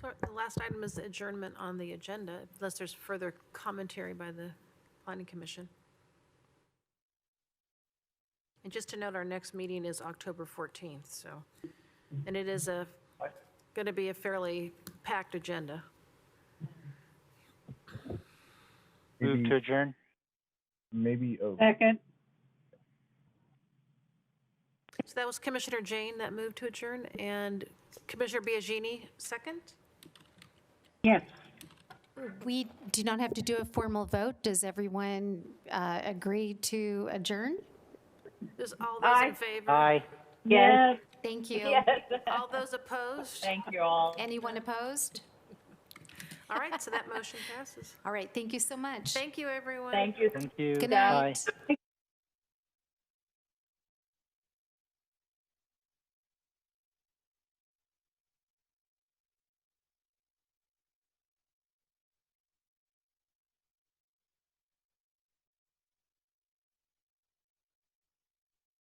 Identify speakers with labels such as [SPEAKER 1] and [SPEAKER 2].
[SPEAKER 1] So the last item is adjournment on the agenda, unless there's further commentary by the planning commission. And just to note, our next meeting is October 14th, so, and it is a, going to be a fairly packed agenda.
[SPEAKER 2] Move
[SPEAKER 3] Maybe-
[SPEAKER 2] to adjourn.
[SPEAKER 3] Maybe, oh,
[SPEAKER 4] Second,
[SPEAKER 1] So that was Commissioner Jane that moved to adjourn, and Commissioner Biagini, second?
[SPEAKER 4] yes.
[SPEAKER 5] We do not have to do a formal vote. Does everyone uh, agree to adjourn?
[SPEAKER 1] There's all those in
[SPEAKER 4] Aye.
[SPEAKER 1] favor?
[SPEAKER 2] Aye.
[SPEAKER 4] Yes.
[SPEAKER 5] Thank you.
[SPEAKER 1] All those opposed?
[SPEAKER 4] Thank you all.
[SPEAKER 5] Anyone opposed?
[SPEAKER 1] All right, so that motion passes.
[SPEAKER 5] All right, thank you so much.
[SPEAKER 1] Thank you, everyone.
[SPEAKER 4] Thank you.
[SPEAKER 2] Thank you.
[SPEAKER 5] Good
[SPEAKER 2] Aye.
[SPEAKER 5] night.